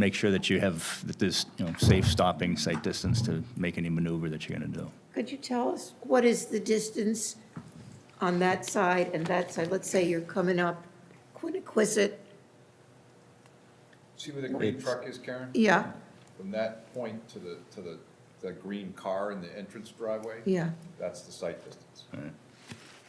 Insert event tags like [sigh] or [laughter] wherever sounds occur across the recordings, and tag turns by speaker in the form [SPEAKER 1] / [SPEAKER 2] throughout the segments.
[SPEAKER 1] make sure that you have, that there's, you know, safe stopping, sight distance to make any maneuver that you're going to do.
[SPEAKER 2] Could you tell us what is the distance on that side and that side? Let's say you're coming up Quiniquisette,
[SPEAKER 3] See where the green
[SPEAKER 1] It's-
[SPEAKER 3] truck is, Karen?
[SPEAKER 2] yeah,
[SPEAKER 3] From that point to the, to the, the green car in the entrance driveway?
[SPEAKER 2] yeah.
[SPEAKER 3] That's the site distance.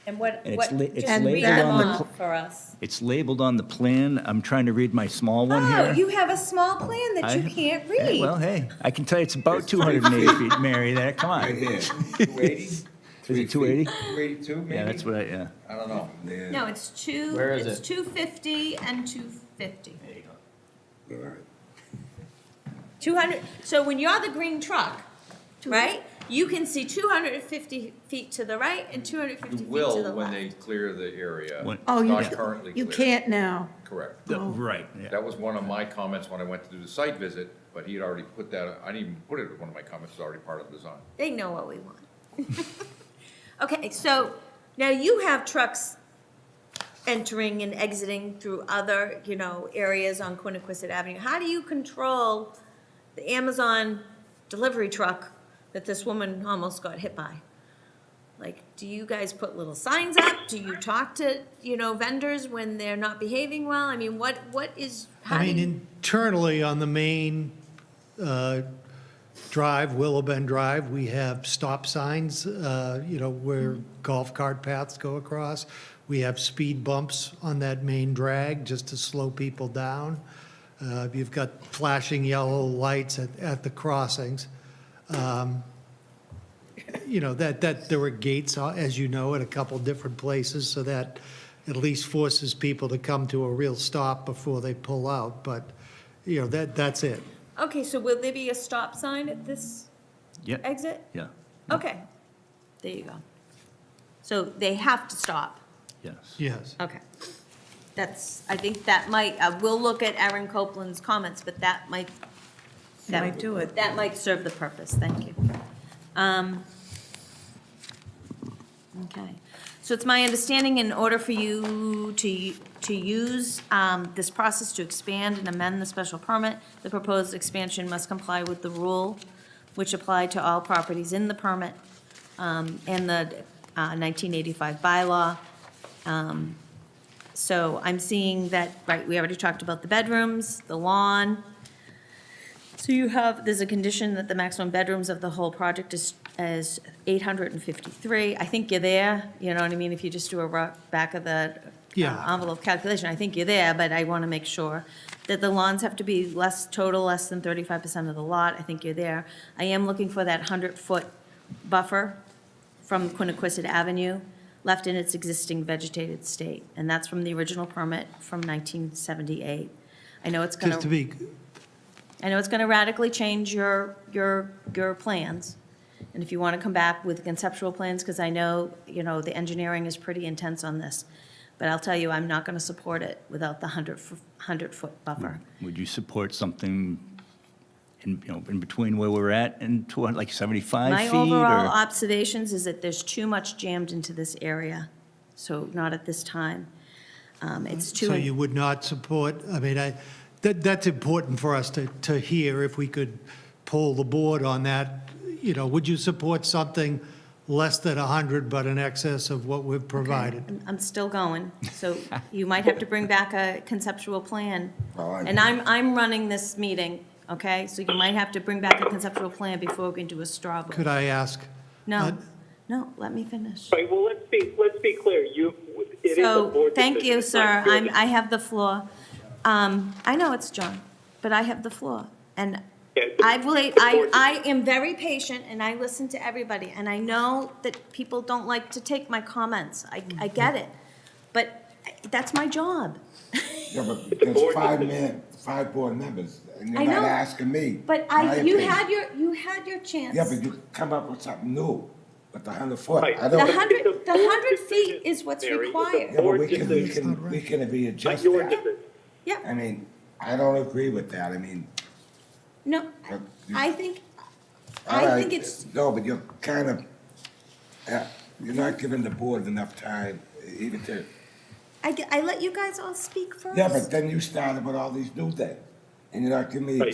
[SPEAKER 4] And what,
[SPEAKER 1] And it's
[SPEAKER 4] what,
[SPEAKER 1] la- it's
[SPEAKER 4] just
[SPEAKER 2] labeled
[SPEAKER 4] read them
[SPEAKER 2] on the
[SPEAKER 1] pl-
[SPEAKER 4] off for us.
[SPEAKER 1] It's labeled on the plan. I'm trying to read my small one here.
[SPEAKER 4] Oh, you have a small plan that you
[SPEAKER 1] I-
[SPEAKER 4] can't
[SPEAKER 1] Hey, Well,
[SPEAKER 4] read.
[SPEAKER 1] hey, I can tell you it's about 280 feet, Mary, there, come on. [laughs] Is
[SPEAKER 3] Two eighty?
[SPEAKER 1] [laughs] it 280?
[SPEAKER 3] Two eighty-two, maybe?
[SPEAKER 1] Yeah, that's what, I- yeah.
[SPEAKER 3] I don't know.
[SPEAKER 4] No, it's two,
[SPEAKER 5] Where is
[SPEAKER 4] it's
[SPEAKER 5] it?
[SPEAKER 4] two fifty and two fifty.
[SPEAKER 6] All right.
[SPEAKER 4] Two hundred, so when you're the green truck, right, you can see two hundred and fifty feet to the right and two hundred and fifty
[SPEAKER 3] You
[SPEAKER 4] feet to the
[SPEAKER 3] will when they
[SPEAKER 4] left.
[SPEAKER 3] clear the area.
[SPEAKER 1] When-
[SPEAKER 2] Oh, you,
[SPEAKER 3] Not currently
[SPEAKER 2] you
[SPEAKER 3] cleared.
[SPEAKER 2] can't now.
[SPEAKER 3] Correct.
[SPEAKER 1] The- Right, yeah.
[SPEAKER 3] That was one of my comments when I went to do the site visit, but he had already put that, I didn't even put it, in one of my comments, it's already part of the design.
[SPEAKER 4] They know what we want. [laughs] Okay, so now you have trucks entering and exiting through other, you know, areas on Quiniquisette Avenue. How do you control the Amazon delivery truck that this woman almost got hit by? Like, do you guys put little signs up? Do you talk to, you know, vendors when they're not behaving well? I mean, what, what is, how
[SPEAKER 7] I
[SPEAKER 4] do
[SPEAKER 7] mean,
[SPEAKER 4] you?
[SPEAKER 7] internally on the main uh, drive, Willow Bend Drive, we have stop signs, uh, you know, where golf cart paths go across. We have speed bumps on that main drag just to slow people down. Uh, You've got flashing yellow lights at, at the crossings. Um, You know, that, that, there were gates, uh, as you know, at a couple different places, so that at least forces people to come to a real stop before they pull out, but, you know, that, that's it.
[SPEAKER 4] Okay, so will there be a stop sign at this
[SPEAKER 1] Yeah,
[SPEAKER 4] exit?
[SPEAKER 1] yeah,
[SPEAKER 2] Mm.
[SPEAKER 4] Okay, there you go. So they have to stop.
[SPEAKER 1] yes.
[SPEAKER 7] Yes.
[SPEAKER 4] Okay. That's, I think that might, uh, we'll look at Aaron Copeland's comments, but that might. that-
[SPEAKER 2] Might do it.
[SPEAKER 4] That might serve the purpose, thank you. Um, Okay, so it's my understanding, in order for you to, to use um, this process to expand and amend the special permit, the proposed expansion must comply with the rule which applied to all properties in the permit um, and the uh, 1985 bylaw. Um, So I'm seeing that, right, we already talked about the bedrooms, the lawn. So you have, there's a condition that the maximum bedrooms of the whole project is, is 853. I think you're there, you know what I mean? If you just do a rough back of the uh,
[SPEAKER 7] Yeah.
[SPEAKER 4] envelope calculation, I think you're there, but I want to make sure that the lawns have to be less, total less than 35% of the lot. I think you're there. I am looking for that 100-foot buffer from Quiniquisette Avenue, left in its existing vegetated state, and that's from the original permit from 1978. I know it's
[SPEAKER 7] Just to
[SPEAKER 4] gonna,
[SPEAKER 7] be,
[SPEAKER 4] I know it's gonna radically change your, your, your plans, and if you wanna come back with conceptual plans, because I know, you know, the engineering is pretty intense on this, but I'll tell you, I'm not gonna support it without the 100, 100-foot buffer.
[SPEAKER 1] Would you support something in, you know, in between where we're at and to, like 75
[SPEAKER 4] My
[SPEAKER 1] feet?
[SPEAKER 4] overall
[SPEAKER 1] or-
[SPEAKER 4] observations is that there's too much jammed into this area, so not at this time. Um, It's too.
[SPEAKER 7] so you would not support, I mean, I, that, that's important for us to, to hear, if we could pull the board on that. You know, would you support something less than 100 but in excess of what we've provided?
[SPEAKER 4] I'm- I'm still going, so you might have to bring back a conceptual plan.
[SPEAKER 6] Oh, I-
[SPEAKER 4] And I'm, I'm running this meeting, okay? So you might have to bring back a conceptual plan before we can do a straw vote.
[SPEAKER 7] Could I ask?
[SPEAKER 4] No,
[SPEAKER 7] uh,
[SPEAKER 4] no, let me finish.
[SPEAKER 8] Right, well, let's be, let's be clear, you, it is a
[SPEAKER 4] So,
[SPEAKER 8] board decision.
[SPEAKER 4] thank you,
[SPEAKER 8] It's not
[SPEAKER 4] sir,
[SPEAKER 8] your
[SPEAKER 4] I'm, I have the floor. Um, I know it's John, but I have the floor, and
[SPEAKER 8] Yeah, it's a-
[SPEAKER 4] I've wait,
[SPEAKER 8] it's a
[SPEAKER 4] I,
[SPEAKER 8] board
[SPEAKER 4] I am very patient, and I listen to everybody, and I know that people don't like to take my comments, I, I get it, but that's my job.
[SPEAKER 6] Yeah, but
[SPEAKER 8] a
[SPEAKER 6] there's
[SPEAKER 8] board
[SPEAKER 6] five
[SPEAKER 8] decision.
[SPEAKER 6] men, five board members, and
[SPEAKER 4] I
[SPEAKER 6] you're not
[SPEAKER 4] know,
[SPEAKER 6] asking me.
[SPEAKER 4] But
[SPEAKER 6] my
[SPEAKER 4] I, you
[SPEAKER 6] opinion.
[SPEAKER 4] had your, you had your chance.
[SPEAKER 6] Yeah, but you come up with something new with the hundred foot.
[SPEAKER 8] Right.
[SPEAKER 6] I
[SPEAKER 4] The
[SPEAKER 6] don't.
[SPEAKER 8] hun-
[SPEAKER 4] hundred,
[SPEAKER 8] It's a
[SPEAKER 4] the
[SPEAKER 8] board
[SPEAKER 4] hundred feet
[SPEAKER 8] decision,
[SPEAKER 4] is what's
[SPEAKER 8] Mary. It's a
[SPEAKER 4] required.
[SPEAKER 6] Yeah, but
[SPEAKER 8] board
[SPEAKER 6] [laughs] we can, we
[SPEAKER 8] decision.
[SPEAKER 6] can, we can readjust
[SPEAKER 8] decision. Your
[SPEAKER 6] that.
[SPEAKER 8] decision.
[SPEAKER 6] I
[SPEAKER 4] Yeah,
[SPEAKER 6] mean, I don't agree with that. I mean,
[SPEAKER 4] no, I- I think,
[SPEAKER 6] all
[SPEAKER 4] I
[SPEAKER 6] right,
[SPEAKER 4] think it's,
[SPEAKER 6] No, but you're kind of, uh, you're not giving the board enough time even to,
[SPEAKER 4] I, g- I let you guys all speak first.
[SPEAKER 6] yeah, but then you started with all these new things.
[SPEAKER 9] and you're not giving me
[SPEAKER 6] Right.